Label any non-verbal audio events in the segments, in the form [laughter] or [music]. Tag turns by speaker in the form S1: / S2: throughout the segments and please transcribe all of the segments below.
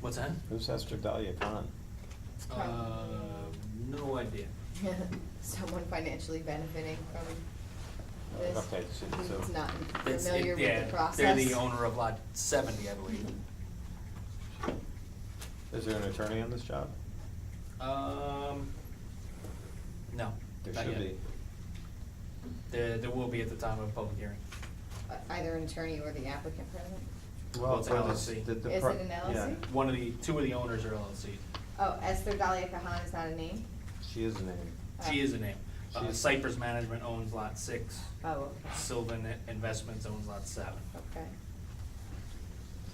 S1: What's that?
S2: Who Sester Dahlia Khan?
S1: Uh, no idea.
S3: um, [laughs] Someone financially benefiting from this.
S2: Okay, so- so-
S3: Who's not
S1: It's- it-
S3: familiar
S1: yeah,
S3: with the process.
S1: They're the owner of lot seventy, I believe.
S2: Is there an attorney on this job?
S1: Um, no.
S2: There
S1: not
S2: should
S1: yet.
S2: be.
S1: There, there will be at the time of public hearing.
S3: Uh, Either an attorney or the applicant present.
S1: Well, it's
S2: for
S1: an
S2: this-
S1: LLC.
S2: the- the
S3: Is
S2: pro-
S3: it an
S2: yeah.
S3: LLC?
S1: One of the, two of the owners are LLC.
S3: Oh, Esther Dahlia Kahan is not a name?
S2: She is a name.
S1: She is a name. Uh,
S2: She's-
S1: Cypress Management owns lot six.
S3: Oh,
S1: Sylvan Investments owns lot seven.
S3: okay.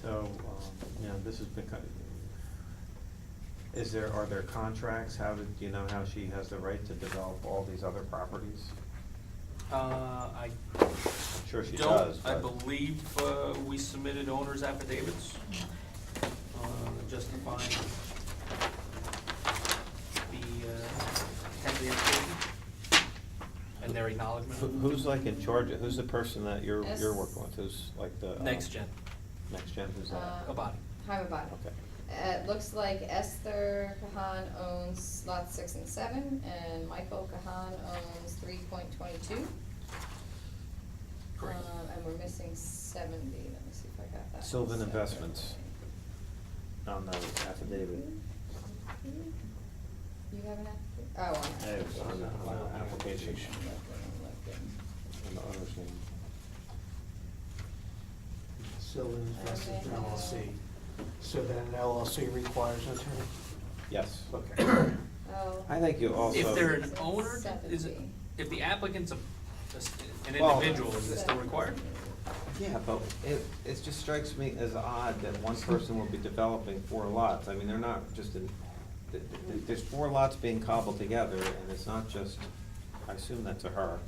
S2: So, um, yeah, this has been kind of, is there, are there contracts? How did, do you know how she has the right to develop all these other properties?
S1: Uh, I
S2: Sure she
S1: don't,
S2: does,
S1: I
S2: but-
S1: believe, uh, we submitted owner's affidavits, uh, justifying the, uh, temporary activity and their
S2: Who-
S1: acknowledgement.
S2: Who's like in charge of, who's the person that you're, you're
S3: Yes.
S2: working with, who's like the? um,
S1: Next gen,
S2: Next Gen, who's that?
S3: Uh,
S1: Abadi.
S3: Hi, Mabon.
S2: Okay.
S3: Uh, It looks like Esther Kahan owns lot six and seven, and Michael Kahan owns three point twenty-two.
S1: Correct.
S3: Um, And we're missing seventy, let me see if I got that.
S2: Sylvan
S3: separate.
S2: Investments. On the affidavit.
S3: hmm. You have an application? Oh, on
S2: Yeah, it was on the, on the application, on the owner's name.
S4: Sylvan Investments LLC. So then an LLC requires an attorney?
S2: Yes.
S4: Okay.
S3: Oh.
S2: I think you also.
S1: If they're an owner, is it,
S3: 70.
S1: if the applicant's a, an
S2: Well-
S1: individual, is it still required?
S2: Yeah, but it, it just strikes me as odd that one person will be developing four lots. I mean, they're not just in, th- th- there's four lots being cobbled together, and it's not just, I assume that's a her.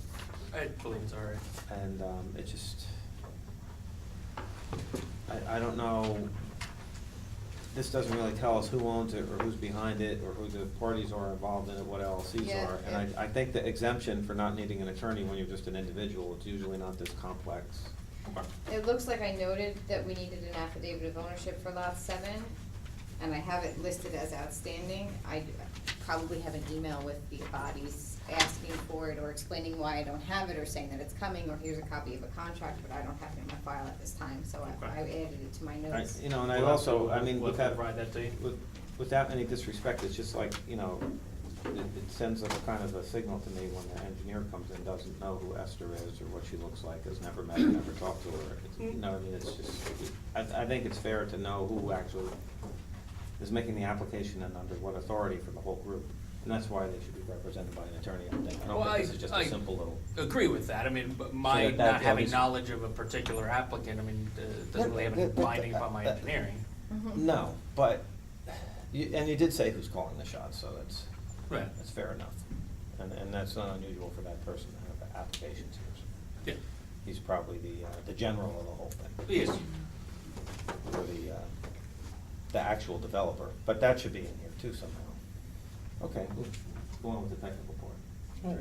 S1: I believe it's all right.
S2: And um, it just, I, I don't know, this doesn't really tell us who owns it, or who's behind it, or who the parties are involved in it, what LLCs
S3: Yeah,
S2: are. And
S3: yeah.
S2: I, I think the exemption for not needing an attorney when you're just an individual, it's usually not this complex.
S3: It looks like I noted that we needed an affidavit of ownership for lot seven, and I have it listed as outstanding. I probably have an email with the bodies asking for it, or explaining why I don't have it, or saying that it's coming, or here's a copy of a contract, but I don't have it in my file at this time, so I, I added it to my
S2: I-
S3: notes.
S2: You know, and I
S1: We'll have
S2: also,
S1: to-
S2: I mean,
S1: we'll
S2: with
S1: have to
S2: that,
S1: provide that to you.
S2: with- without any disrespect, it's just like, you know, it it sends a kind of a signal to me when the engineer comes in, doesn't know who Esther is or what she looks like, has never met, her, never talked to her. It's- You know, I mean, it's just, I, I think it's fair to know who actually is making the application and under what authority for the whole group. And that's why they should be represented by an attorney, I think. I
S1: Well,
S2: don't
S1: I-
S2: think this is just
S1: I
S2: a simple little.
S1: Agree with that, I mean, but my
S2: So that-
S1: not
S2: that
S1: having
S2: is-
S1: knowledge of a particular applicant, I mean, uh, doesn't really have any
S2: That- that-
S1: binding upon my
S2: that-
S1: engineering.
S3: Mhm.
S2: No, but, you- and you did say who's calling the shots, so that's.
S1: Right.
S2: That's fair enough. And, and that's not unusual for that person to have applications here.
S1: Yeah,
S2: He's probably the, uh, the general of the whole thing.
S1: yes,
S2: Or the, uh, the actual developer, but that should be in here too somehow. Okay, we'll go on with the technical part.
S4: All right.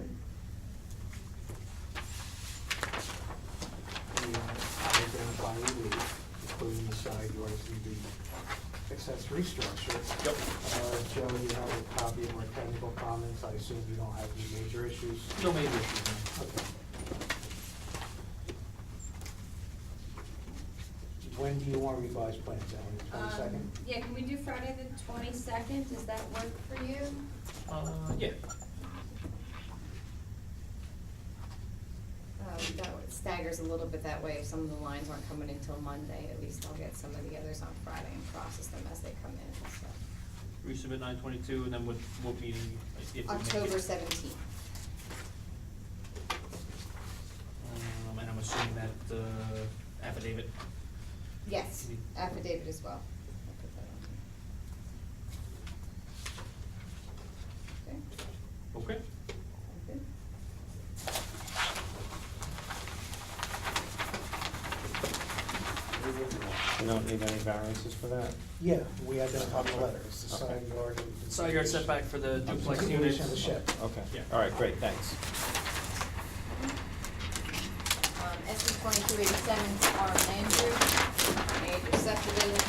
S4: We identify the lead, including the side yards and the accessory structure.
S1: Yep.
S4: Uh, Joe, you have a copy of our technical comments. I assume you don't have any major issues?
S1: no major issues. no.
S4: Okay. When do you want revised plans, Alan? Twenty-second?
S5: Um, Yeah, can we do Friday the twenty-second, does that work for you?
S1: Uh, yeah,
S3: Um, that one staggers a little bit that way, if some of the lines aren't coming until Monday, at least I'll get some of the others on Friday and process them as they come in, so.
S1: resubmit nine twenty-two, and then what, what meeting? if we make it.
S3: October seventeenth.
S1: Um, and I'm assuming that, uh, affidavit,
S3: Yes,
S1: You need-
S3: affidavit as well. I'll put that on here. Okay,
S1: okay?
S3: sound good?
S2: You don't need any variances for that?
S4: Yeah, we identified the letters, the side yard and.
S1: Side yard setback for the duplex units.
S4: Continuation of the shed.
S2: Okay,
S1: Yeah.
S2: all right, great, thanks.
S3: Um, SC twenty-two eighty-seven, Arm Landry, major subdivision,